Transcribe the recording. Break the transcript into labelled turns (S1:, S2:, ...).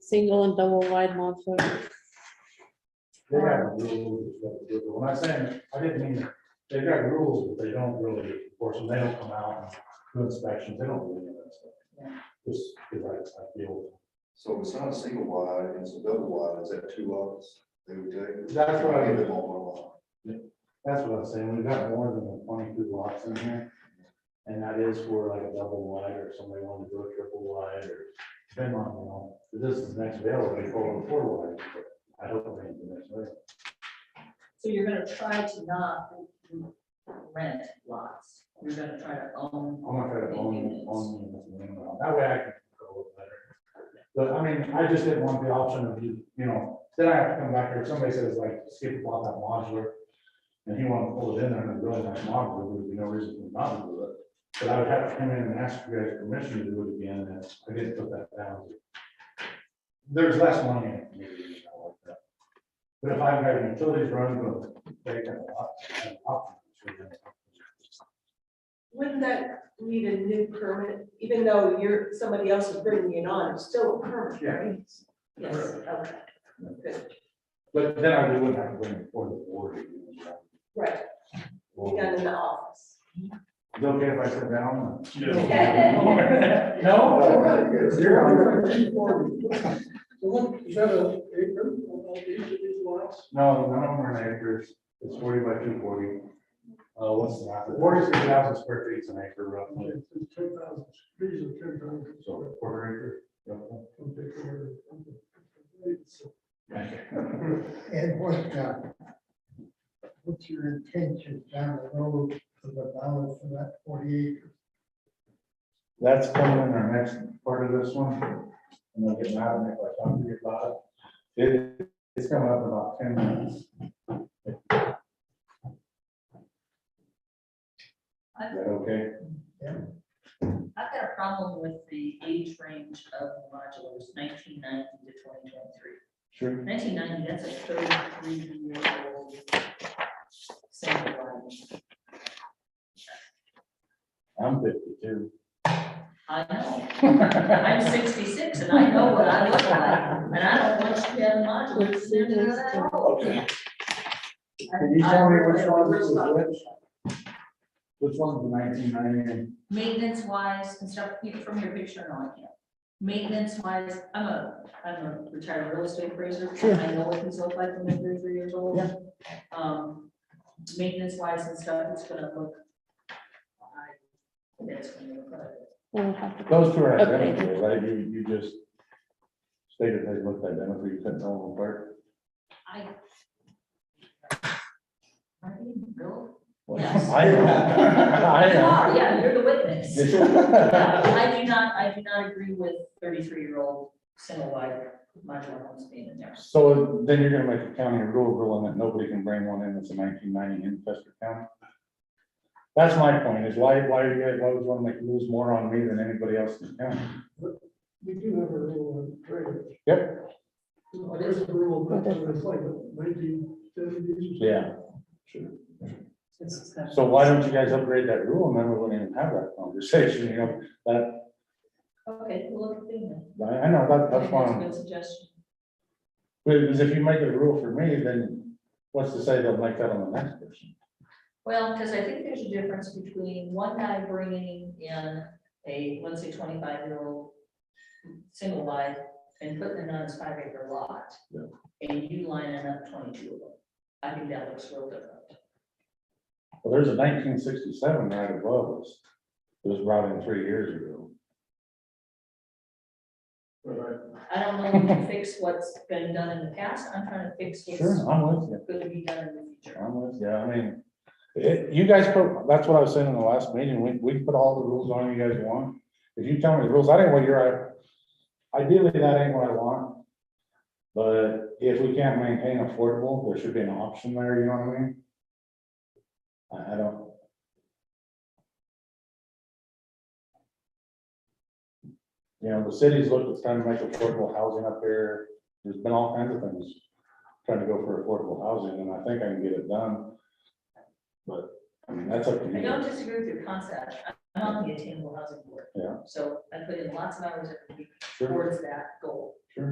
S1: single and double wide multiple.
S2: They got rules, when I say, I didn't mean, they got rules, but they don't really enforce them, they don't come out and do inspections, they don't really do that stuff. Just because I, I feel,
S3: So it's not a single wide, it's a double wide, is that two lots? They would take.
S2: That's what I-
S3: Give them all
S2: that's what I'm saying, we've got more than twenty-two lots in here. And that is for like a double wide, or somebody wanted to do a triple wide, or depend on, you know, this is next available, they call it a four wide. but I hope they do this, right?
S4: So you're gonna try to not rent lots, you're gonna try to own.
S2: I'm gonna try to own,
S4: Units.
S2: own units, and then, uh, that way I can control it better. But I mean, I just didn't want the option of you, you know, then I have to come back here, if somebody says like, skip about that modular. And he wanted to pull it in there and build that modular, there would be no reason for him not to do it. But I would have to come in and ask you guys permission to do it again, and I didn't put that down. There's less money in it. maybe, I like that. But if I've got utilities running, but they can.
S5: Wouldn't that need a new permit, even though you're, somebody else is bringing it on, it's still a permit, right?
S4: Yes, okay,
S2: But then I really wouldn't have to bring it before the board.
S5: Right,
S2: Well,
S5: done in the office.
S2: Is it okay if I sit down?
S4: Yeah.
S2: No?
S3: along.
S2: No, none of them are in acres. It's forty by two forty. Uh, what's that? Forty-three thousand square feet is an acre roughly.
S6: Ten thousand, these are ten thousand.
S2: So a quarter acre. roughly.
S6: And what, uh, what's your intention down the road for the balance of that forty acres?
S2: That's coming in our next part of this one. I'm gonna get mad at me if I talk to you about it. It, it's coming up in about ten minutes. Is that okay?
S4: I've got a problem with the age range of modulars, nineteen ninety to twenty twenty-three.
S2: Sure.
S4: Nineteen ninety, that's a thirty-three year old. Single wide.
S2: I'm fifty-two.
S4: I know, I'm sixty-six and I know what I look like, and I don't want you to have modulars in there that at all.
S2: Can you tell me which one this is which? Which one's the nineteen ninety?
S4: Maintenance wise and stuff, you- from your picture, no, I can't. Maintenance wise, I'm a, I'm a retired real estate appraiser, I know what these look like when they're three years old. Um, maintenance wise and stuff, it's gonna look. I- It's gonna look like.
S2: Those two are
S1: Okay.
S2: identical, right? You, you just stated they looked identical, you couldn't tell them apart.
S4: I. Are you real?
S2: Well,
S4: Yes.
S2: I
S4: You
S2: am.
S4: are, Yeah, you're the witness.
S2: I am.
S4: I do not, I do not agree with thirty-three-year-old single wide modular homes being in there.
S2: So then you're gonna make a county rule ruling that nobody can bring one in that's a nineteen ninety in Chester County? That's my point, is why, why are you guys always wanna make rules more on me than anybody else in the county?
S6: We do have a rule on trailers.
S2: Yep.
S6: There's a rule, but it's like nineteen seventies.
S2: Yeah.
S4: It's not-
S2: So why don't you guys upgrade that rule and then we wouldn't even have that conversation, you know, that,
S4: Okay, we'll look at that.
S2: I I know, that,
S4: I
S2: that's
S4: think That's a
S2: fine.
S4: good suggestion.
S2: But because if you make a rule for me, then what's to say they'll make that on the next person?
S4: Well, because I think there's a difference between one guy bringing in a, let's say, twenty-five-year-old single wide and putting it on his five-acre lot.
S2: Yeah.
S4: And you lining up twenty-two of them. I think that looks real different.
S2: Well, there's a nineteen sixty-seven right above us. It was brought in three years ago.
S4: I don't know if you fix what's been done in the past, I'm trying to fix what's
S2: Sure, I'm with you.
S4: going to be done in the future.
S2: I'm with you. I mean, it, you guys put, that's what I was saying in the last meeting. We, we put all the rules on you guys want. If you tell me the rules, I didn't want your, ideally, that ain't what I want. But if we can't maintain affordable, there should be an option there, you know what I mean? I, I don't. You know, the city's looked at trying to make affordable housing up there. There's been all kinds of things trying to go for affordable housing, and I think I can get it done. But, I mean, that's up to
S4: I
S2: me.
S4: don't disagree with your concept, I'm on the attainable housing board.
S2: Yeah.
S4: So I put in lots of hours every week
S2: Sure.
S4: towards that goal.